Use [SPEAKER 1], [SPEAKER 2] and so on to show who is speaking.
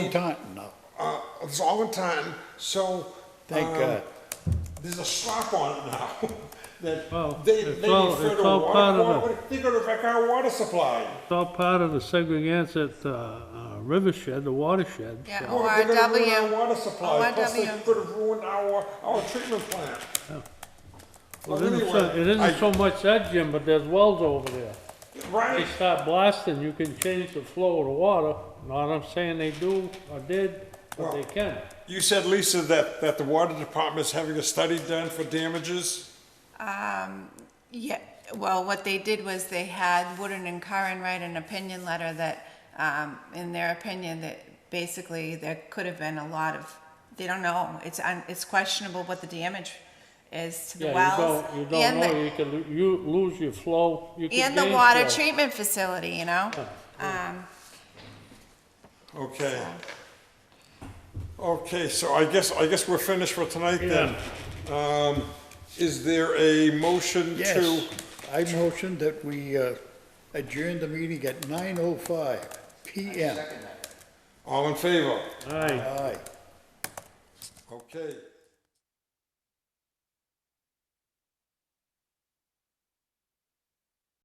[SPEAKER 1] Taunton, though.
[SPEAKER 2] Uh, it's all in time, so.
[SPEAKER 1] Thank
[SPEAKER 2] um,
[SPEAKER 1] God.
[SPEAKER 2] There's a slap on it now.
[SPEAKER 3] Well,
[SPEAKER 2] That they, they
[SPEAKER 3] Oh, it's all,
[SPEAKER 2] refer
[SPEAKER 3] it's
[SPEAKER 2] to
[SPEAKER 3] all part
[SPEAKER 2] water,
[SPEAKER 3] of the,
[SPEAKER 2] water, they go to wreck our water supply.
[SPEAKER 3] it's all part of the Segregated, uh, uh, Rivershed, the watershed.
[SPEAKER 4] Yeah,
[SPEAKER 3] so-
[SPEAKER 2] Oh, they're gonna ruin our
[SPEAKER 4] ORW.
[SPEAKER 2] Water supply, plus they
[SPEAKER 4] ORW.
[SPEAKER 2] could have ruined our, our treatment plant. Well,
[SPEAKER 3] It isn't so-
[SPEAKER 2] anyway,
[SPEAKER 3] it
[SPEAKER 2] I-
[SPEAKER 3] isn't so much that, Jim, but there's wells over there. They
[SPEAKER 2] Right,
[SPEAKER 3] start blasting, you can change the flow of the water. Not I'm saying they do or did, but they can.
[SPEAKER 2] you said, Lisa, that, that the water department's having a study done for damages?
[SPEAKER 4] Yeah, well, what they did was they had Wooden and Curran write an opinion letter that, um, in their opinion, that basically there could have been a lot of, they don't know, it's, un- it's questionable what the damage is to the
[SPEAKER 3] Yeah, you
[SPEAKER 4] wells.
[SPEAKER 3] don't, you don't
[SPEAKER 4] and the-
[SPEAKER 3] know, you can, lo- you lose your flow, you can
[SPEAKER 4] And the
[SPEAKER 3] gain
[SPEAKER 4] water
[SPEAKER 3] flow.
[SPEAKER 4] treatment facility, you know? Um,
[SPEAKER 2] Okay. Okay, so I guess, I guess we're finished for tonight then. Um, is there a motion to?
[SPEAKER 1] Yes, I motion that we uh, adjourn the meeting at 9:05 PM.
[SPEAKER 2] All in favor?
[SPEAKER 3] Aye.
[SPEAKER 1] Aye.
[SPEAKER 2] Okay.